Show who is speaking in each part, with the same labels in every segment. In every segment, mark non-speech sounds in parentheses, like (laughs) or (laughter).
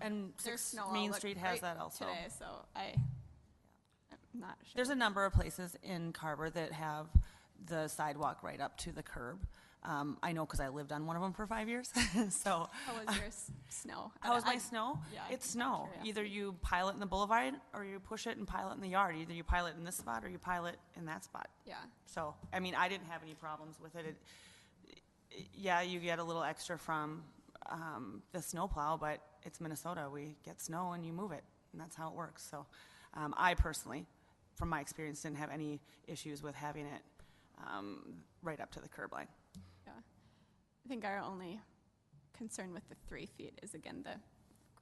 Speaker 1: and
Speaker 2: There's
Speaker 1: Sixth
Speaker 2: snow
Speaker 1: Main
Speaker 2: outlook
Speaker 1: Street has
Speaker 2: right
Speaker 1: that also.
Speaker 2: Today, so I, I'm not sure.
Speaker 1: There's a number of places in Carver that have the sidewalk right up to the curb. Um, I know because I lived on one of them for five years, (laughs) so.
Speaker 2: How was your s- snow?
Speaker 1: (laughs)
Speaker 2: I
Speaker 1: How was
Speaker 2: don't-
Speaker 1: my
Speaker 2: I-
Speaker 1: snow?
Speaker 2: yeah,
Speaker 1: It's
Speaker 2: I'm not
Speaker 1: snow.
Speaker 2: sure, yeah.
Speaker 1: Either you pile it in the boulevard or you push it and pile it in the yard. Either you pile it in this spot or you pile it in that spot.
Speaker 2: Yeah,
Speaker 1: So, I mean, I didn't have any problems with it. It- Yeah, you get a little extra from, um, the snowplow, but it's Minnesota. We get snow and you move it, and that's how it works. So, um, I personally, from my experience, didn't have any issues with having it, um, right up to the curb line.
Speaker 2: yeah. I think our only concern with the three feet is again, the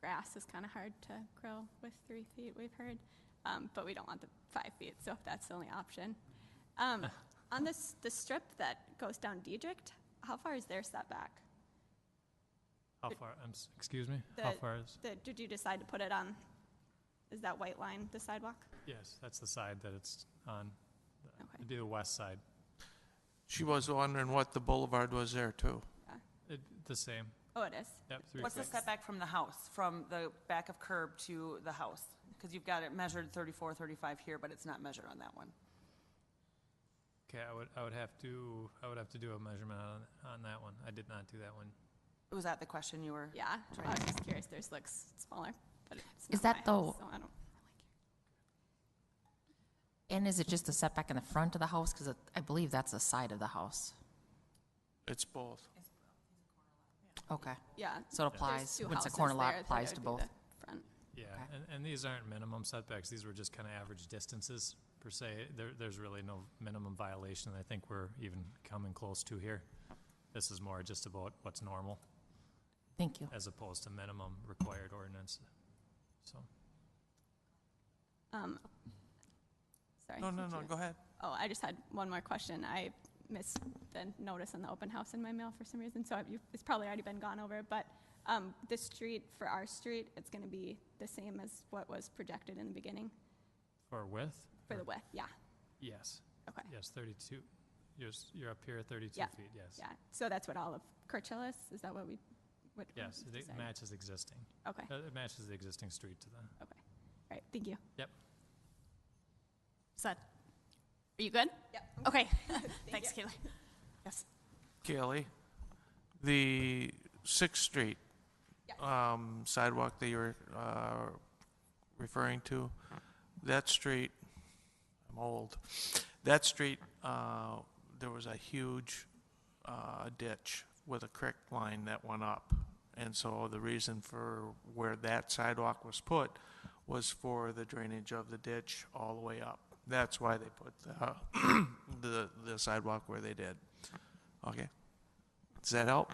Speaker 2: grass is kind of hard to grow with three feet, we've heard. Um, but we don't want the five feet, so if that's the only option.
Speaker 1: (laughs)
Speaker 2: Um, on this, the strip that goes down Diedrich, how far is their setback?
Speaker 3: How
Speaker 2: It-
Speaker 3: far, I'm, s- excuse me? How
Speaker 2: The-
Speaker 3: far is,
Speaker 2: The, did you decide to put it on, is that white line the sidewalk?
Speaker 3: yes, that's the side that it's on. The-
Speaker 2: Okay.
Speaker 3: It'd be the west side.
Speaker 4: She was wondering what the boulevard was there too.
Speaker 3: It, the same,
Speaker 2: Oh, it is.
Speaker 3: yep, three
Speaker 1: What's the
Speaker 3: feet.
Speaker 1: setback from the house, from the back of curb to the house? Because you've got it measured 34, 35 here, but it's not measured on that one.
Speaker 3: Okay, I would, I would have to, I would have to do a measurement on, on that one. I did not do that one.
Speaker 1: Was that the question you were?
Speaker 2: Yeah, I was just curious, theirs looks smaller, but it's not
Speaker 5: Is that
Speaker 2: my
Speaker 5: the-
Speaker 2: house, so I don't.
Speaker 5: And is it just the setback in the front of the house? Because I believe that's the side of the house.
Speaker 4: It's both.
Speaker 5: Okay.
Speaker 2: Yeah.
Speaker 5: So it
Speaker 2: there's
Speaker 5: applies,
Speaker 2: two
Speaker 5: once a
Speaker 2: houses
Speaker 5: corner lot
Speaker 2: there, I think
Speaker 5: applies
Speaker 2: it
Speaker 5: to
Speaker 2: would
Speaker 5: both.
Speaker 2: be the Front.
Speaker 3: Yeah,
Speaker 5: Okay.
Speaker 3: and, and these aren't minimum setbacks, these were just kind of average distances per se. There, there's really no minimum violation I think we're even coming close to here. This is more just about what's normal
Speaker 5: Thank you.
Speaker 3: as opposed to minimum required ordinance, so.
Speaker 2: Um, Sorry.
Speaker 4: No, no,
Speaker 2: did
Speaker 4: no,
Speaker 2: you-
Speaker 4: go ahead.
Speaker 2: Oh, I just had one more question. I missed the notice on the open house in my mail for some reason, so I- you- it's probably already been gone over, but um, the street, for our street, it's going to be the same as what was projected in the beginning
Speaker 3: For width?
Speaker 2: for the
Speaker 3: Or-
Speaker 2: width, yeah,
Speaker 3: Yes,
Speaker 2: okay.
Speaker 3: yes, thirty-two, you're, s- you're up here at thirty-two
Speaker 2: Yeah,
Speaker 3: feet, yes.
Speaker 2: Yeah, so that's what all of Kirchill is, is that what we, what? we
Speaker 3: Yes, it
Speaker 2: decided?
Speaker 3: matches existing,
Speaker 2: Okay,
Speaker 3: Uh, it matches the existing street to the,
Speaker 2: okay, all right, thank you.
Speaker 3: yep.
Speaker 6: Is that, are you good?
Speaker 2: Yep.
Speaker 6: Okay, thanks, Kaylee. Yes.
Speaker 4: Kelly, the Sixth Street um, sidewalk that you were uh, referring to, that street, I'm old, that street, uh, there was a huge uh, ditch with a creek line that went up. And so the reason for where that sidewalk was put was for the drainage of the ditch all the way up. That's why they put the, (coughs) the, the sidewalk where they did. Okay? Does that help?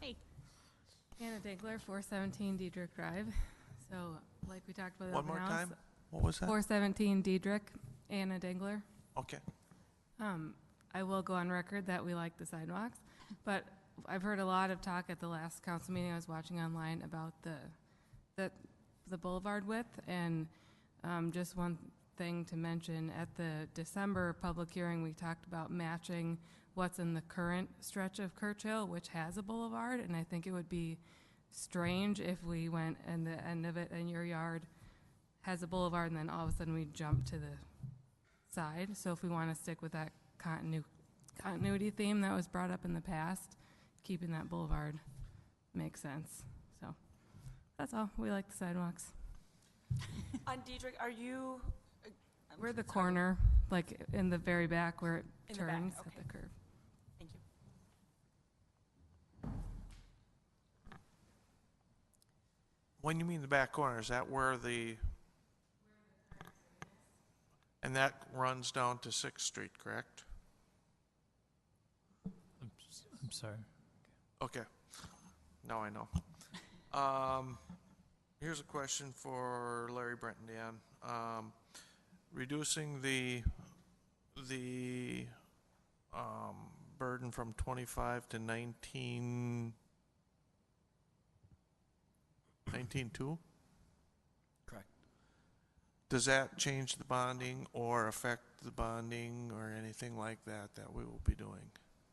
Speaker 6: Hey.
Speaker 7: Anna Dinkler, 417 Diedrich Drive. So, like we talked about. the
Speaker 4: One
Speaker 7: open
Speaker 4: more
Speaker 7: house,
Speaker 4: time? What was that?
Speaker 7: 417 Diedrich, Anna Dinkler.
Speaker 4: Okay.
Speaker 7: Um, I will go on record that we like the sidewalks, but I've heard a lot of talk at the last council meeting I was watching online about the, the, the boulevard width, and, um, just one thing to mention, at the December public hearing, we talked about matching what's in the current stretch of Churchill, which has a boulevard, and I think it would be strange if we went and the end of it in your yard has a boulevard, and then all of a sudden we jump to the side. So if we want to stick with that continu- continuity theme that was brought up in the past, keeping that boulevard makes sense. So that's all. We like the sidewalks.
Speaker 1: On Diedrich, are you? uh,
Speaker 7: We're the corner, like in the very back where it
Speaker 1: In the back,
Speaker 7: turns at
Speaker 1: okay.
Speaker 7: the curb.
Speaker 1: Thank you.
Speaker 4: When you mean the back corner, is that where the? And that runs down to Sixth Street, correct?
Speaker 3: I'm, s- I'm sorry.
Speaker 4: Okay. Now I know. Um, here's a question for Larry Brenton, Dan. Um, reducing the, the, um, burden from twenty-five to nineteen, nineteen-two?
Speaker 8: Correct.
Speaker 4: Does that change the bonding or affect the bonding or anything like that that we will be doing?